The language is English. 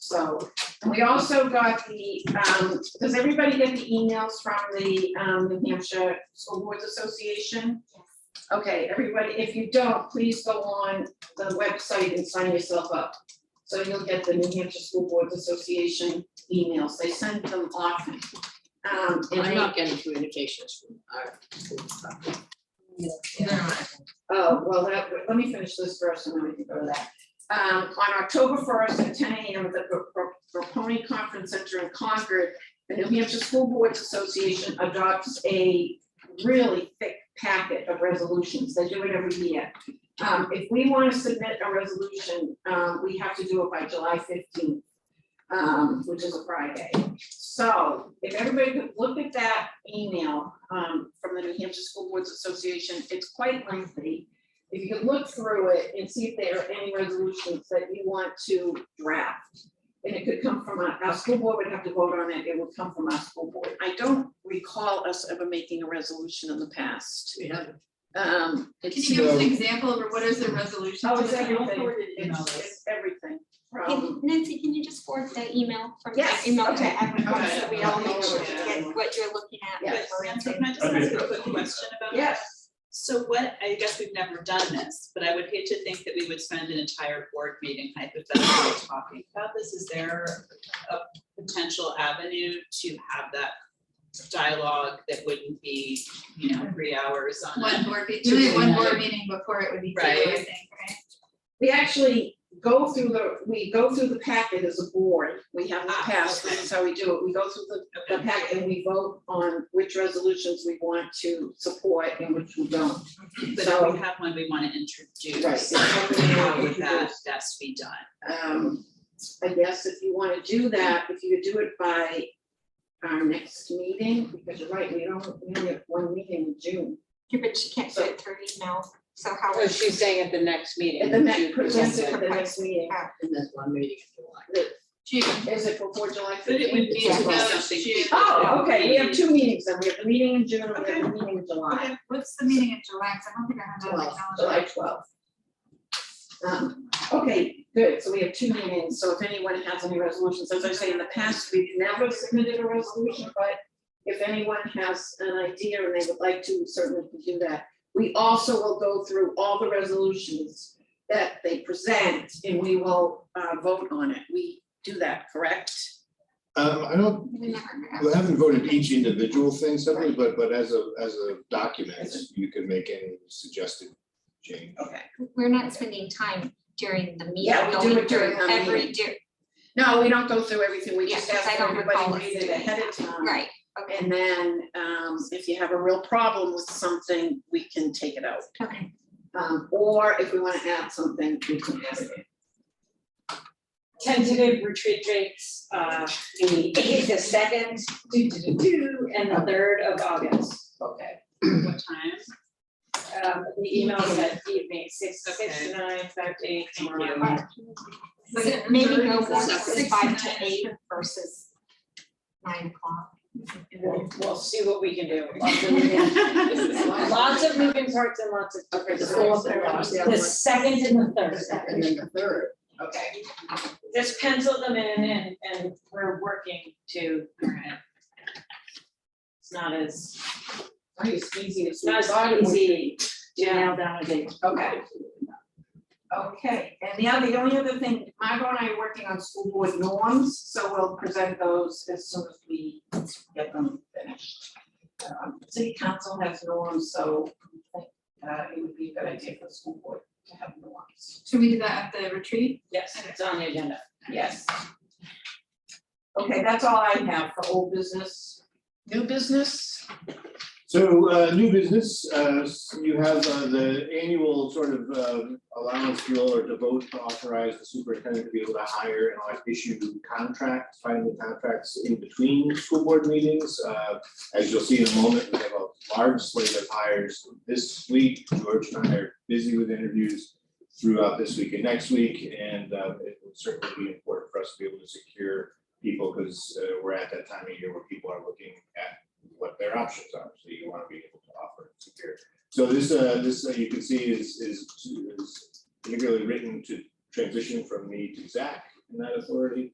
So, and we also got the, um, does everybody get the emails from the, um, New Hampshire School Boards Association? Okay, everybody, if you don't, please go on the website and sign yourself up. So you'll get the New Hampshire School Boards Association emails, they send them often. Um, and I'm they- not getting communications from our. school department. Oh, well, that, let me finish this first and then we can go to that. Um, on October first at ten AM at the Pro- Pro- Proponi Conference Center in Concord, the New Hampshire School Boards Association adopts a really thick packet of resolutions. They do it every year. Um, if we want to submit a resolution, um, we have to do it by July fifteenth, um, which is a Friday. So if everybody could look at that email um, from the New Hampshire School Boards Association, it's quite lengthy. If you could look through it and see if there are any resolutions that you want to draft. And it could come from, our, our school board would have to vote on it, it would come from our school board. I don't recall us ever making a resolution in the past. We haven't. Um, Can it's, you give us an example of what is the resolution? oh, to it's the town? everything, it's, it's everything Can- from, Nancy, can you just forward that email from Um, Yes, that email to okay. everyone, so we all Okay. make sure to get what you're looking at? Yeah. But Samantha, can I just ask a quick question about? yes. So what, I guess we've never done this, but I would hate to think that we would spend an entire board meeting hypothetically talking about this. Is there a potential avenue to have that dialogue that wouldn't be, you know, three hours on? One board, meeting- Two usually one meetings. board meeting before it would be two, I Right. think, right? we actually go through the, we go through the packet as a board, we have not passed, this is how we do it, we go through the, the packet and we vote on which resolutions we want to support and which we don't. But if So- we have one we want to introduce. Right. How would that best be done? Um, I guess if you wanna do that, if you do it by our next meeting, because you're right, we don't, we only have one meeting in June. Yeah, but she can't do it through email, so how? Oh, she's saying at the next meeting. And then you that presents it present for the next meeting, it, And there's one meeting in July. June, is it before July But fifteenth? it would need to Exactly. be something. June. Oh, okay, we have two meetings, then we have the meeting in June, and we have the meeting in July. Okay, what's the meeting in July, 'Cause I don't think I have that on my July, calendar. July twelfth. Um, okay, good, so we have two meetings, so if anyone has any resolutions, as I say, in the past, we've never submitted a resolution, but if anyone has an idea and they would like to, certainly can do that. We also will go through all the resolutions that they present and we will uh vote on it, we do that, correct? Um, I don't, We never have. I haven't voted each individual thing separately, but, but as a, as a document, you can make any suggested change. Okay. We're not spending time during the meeting, Yeah, we do going it during through the every, meeting. do, No, we don't go through everything, we Yeah, just because ask I don't recall everybody us to read it doing ahead of time. right, okay, Um, And then, um, if you have a real problem with something, we can take it out. okay. Um, or if we wanna add something, we can add it. tentative retreat dates, uh, the eighth, the second, two, two, two, two, and the third of August. Okay. What time? Um, the email is at evening, six, six to nine, five to eight Thank tomorrow. you. Was it Maybe third, go is that one six, forty-five to nine? eight versus nine o'clock. We'll, we'll see what we can do. Lots Lots of moving parts and lots of Okay, different the things. fourth and last, the other The one. second and the third. And then the third, okay. Just pencil them in and, and we're working to, All right. it's not as, Nice, easy, it's it's not as easy to nail down a date. Okay. Okay, and the other, the only other thing, Margot and I are working on school board norms, so we'll present those as soon as we get them finished. Um, City council has norms, so I think, uh, it would be a good idea for the school board to have norms. Should we do that at the retreat? Yes, it's on the agenda. Yes. Okay, that's all I have for old business. New business? So, uh, new business, uh, s- you have, uh, the annual sort of, um, allowance bill or devote to authorize the superintendent to be able to hire and like issue contracts, finding contracts in between school board meetings. Uh, as you'll see in a moment, we have a large slate of hires this week. George and I are busy with interviews throughout this week and next week, and, uh, it will certainly be important for us to be able to secure people, because, uh, we're at that time of year where people are looking at what their options are, so you wanna be able to offer and secure. So this, uh, this, uh, you can see is, is, is particularly written to transition from me to Zach in that authority.